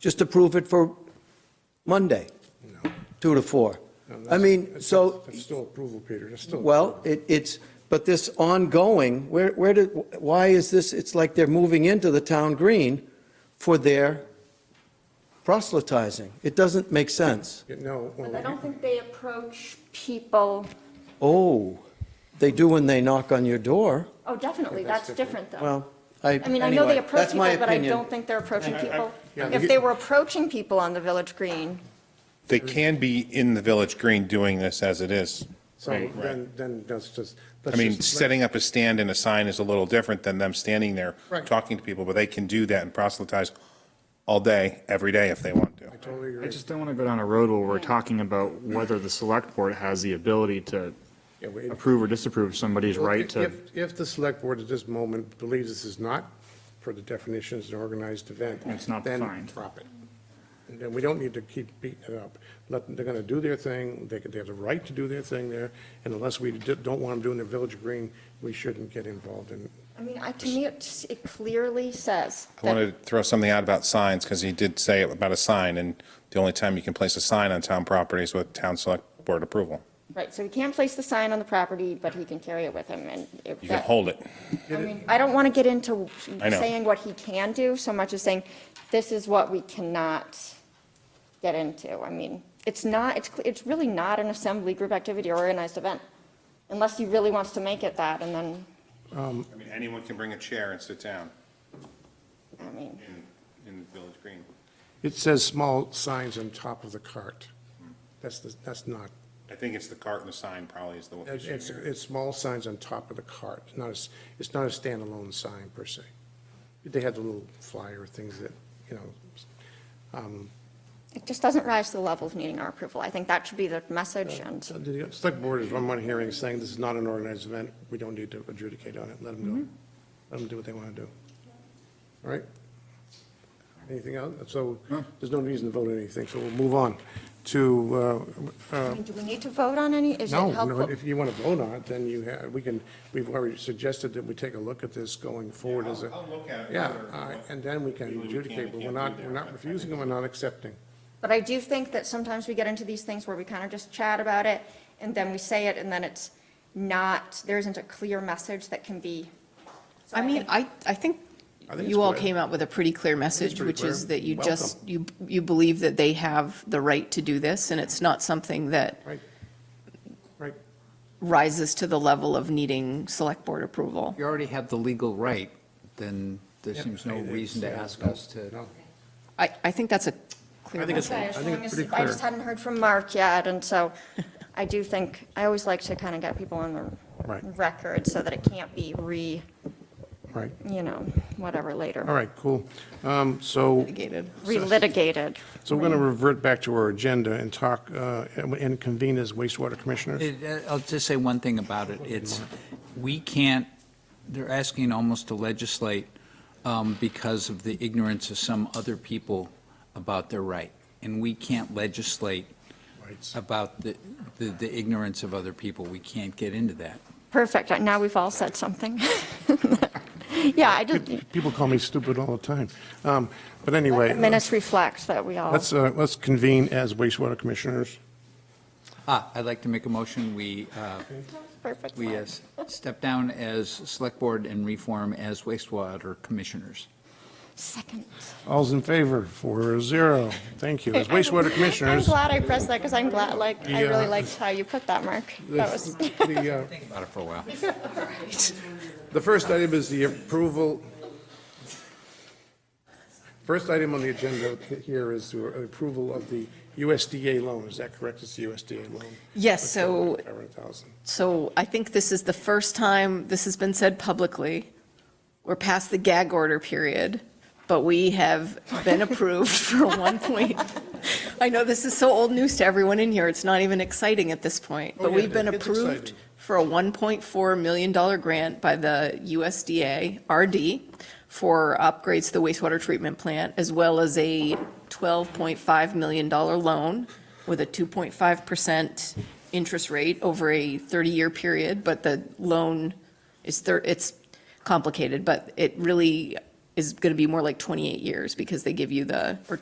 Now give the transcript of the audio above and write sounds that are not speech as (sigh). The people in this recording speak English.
just approve it for Monday, No. 2 to 4. No, I that's- mean, that's- so, That's still approval, Peter, that's still. well, it, it's, but this ongoing, where, where did, why is this, it's like they're moving into the town green for their proselytizing. It doesn't make sense. Yeah, No, But I don't well, think they approach people, Oh, they do when they knock on your door. oh, definitely, Yeah, that's that's different, though. Well, I, I mean, I know they anyway, approach that's people, my but I opinion. don't think they're approaching I- I- people. yeah, If you- they were approaching people on the Village Green, They can be in the Village Green doing this as it is. so then, then that's just. I mean, setting up a stand and a sign is a little different than them standing there talking to people, but they can do that and proselytize all day, every day if they want to. Totally I agree. just don't want to go down a road where we're talking about whether the select board has the ability to Yeah, we- approve or disapprove somebody's right to. If- If the select board at this moment believes this is not, per the definitions, an organized event. It's not Then defined. drop it. And then we don't need to keep beating it up. Let, them- they're going to do their thing, they, could- they have the right to do their thing there, and unless we d- don't want them doing the Village Green, we shouldn't get involved in. I mean, I, to me, it it clearly says I wanted that, to throw something out about signs, because he did say about a sign, and the only time you can place a sign on town property is with town select board approval. right, so he can't place the sign on the property, but he can carry it with him, and. if You can that- hold it. I mean, I don't want to get into I know. saying what he can do so much as saying, this is what we cannot get into. I mean, it's not, it's, it's really not an assembly group activity or organized event, unless he really wants to make it that, and then, I mean, anyone can bring a chair and sit down I mean, in, in the Village Green. It says small signs on top of the cart. That's, the- that's not, I think it's the cart and the sign probably is the one. it's, it's- it's small signs on top of the cart, It's not, a s- it's not a standalone sign per se. They had the little flyer things that, you know, it just doesn't rise to the level of needing our approval. I think that should be the message, and So The select board is, from one hearing, saying this is not an organized event, we don't need to adjudicate on it, let them go. Let them do what they want to do. All right? Anything else? So there's no reason to vote on anything, so we'll move on to, uh, I mean, do we need to vote on any? Is it no, no, helpful? if you want to vote on it, then you have, we can, we've already suggested that we take a look at this going forward as a. I'll- I'll look at it, Yeah, whether- all right, and then we Legally, can we can, adjudicate, we but we're can't not, do that. we're not refusing them, we're not accepting. But I do think that sometimes we get into these things where we kind of just chat about it, and then we say it, and then it's not, there isn't a clear message that can be. so I mean, think- I, I think I think it's you all clear. came out with a pretty clear message, pretty which is clear. that you Welcome. just, you, you believe that they have the right to do this, and it's not something that Right? Right? rises to the level of needing select board approval. You already have the legal right, then there Yep. seems no It's, reason to uh, ask no, us to. no. I, I think that's a clear message. Okay, as I think long it's as- pretty I clear. just hadn't heard from Mark yet, and so I do think, I always like to kind of get people on the Right. record so that it can't be re, Right. you know, whatever All later, right, cool. Um, So, Obligated. relitigated. so we're going to revert back to our agenda and talk, uh, and and convene as wastewater commissioners. It- uh, I'll just say one thing about it. It's, we can't, they're asking almost to legislate um, because of the ignorance of some other people about their right. And we can't legislate about the, the- the ignorance of other people. We can't get into that. Perfect, now we've all said something. (laughs) Yeah, I just, People call me stupid all the time. Um, But anyway, minutes reflect that we all, let's, uh, let's convene as wastewater commissioners. Ah, I'd like to make a motion, we, uh, perfect. we uh, step down as select board and reform as wastewater commissioners. Second. All's in favor, four zero. Thank you. As wastewater (laughs) I'm commissioners. glad I pressed that, because I'm glad, like, I Yeah. really liked how you put that, Mark. That was. the, uh, Think about it for a while. The first item is the approval. First item on the agenda here is the approval of the USDA loan. Is that correct? It's the USDA loan? Yes, so $500,000. So I think this is the first time this has been said publicly. We're past the gag order period, but we have (laughs) been approved for one point. I know this is so old news to everyone in here, it's not even exciting at this point, but Oh, yeah, we've been it's approved exciting. for a $1.4 million grant by the USDA RD for upgrades to the wastewater treatment plant, as well as a $12.5 million loan with a 2.5% interest rate over a 30-year period, but the loan is, thir- it's complicated, but it really is going to be more like 28 years because they give you the, or